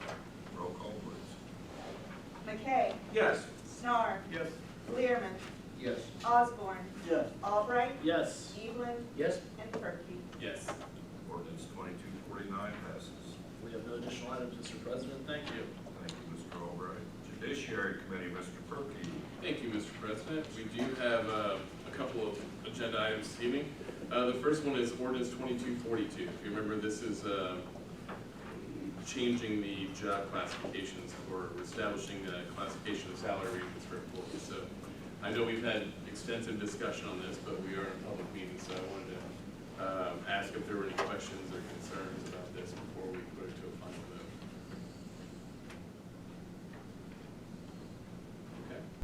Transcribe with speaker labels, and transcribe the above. Speaker 1: McKay,
Speaker 2: Yes.
Speaker 1: Snar,
Speaker 2: Yes.
Speaker 1: Learman,
Speaker 3: Yes.
Speaker 1: Osborne,
Speaker 4: Yes.
Speaker 1: Albright,
Speaker 4: Yes.
Speaker 1: Evelyn,
Speaker 3: Yes.
Speaker 1: and Perky.
Speaker 2: Yes. Ordinance twenty-two forty-nine passes.
Speaker 4: We have no additional items, Mr. President, thank you.
Speaker 2: Thank you, Mr. Albright. Judiciary Committee, Mr. Perky.
Speaker 5: Thank you, Mr. President. We do have uh, a couple of agenda items this evening. Uh, The first one is ordinance 2242. If you remember, this is uh, changing the job classifications or establishing the classification of salary ranges for employees. So I know we've had extensive discussion on this, but we are in a public meeting, so I uh, wanted to um, ask if there were any questions or concerns about this before we go to a final vote.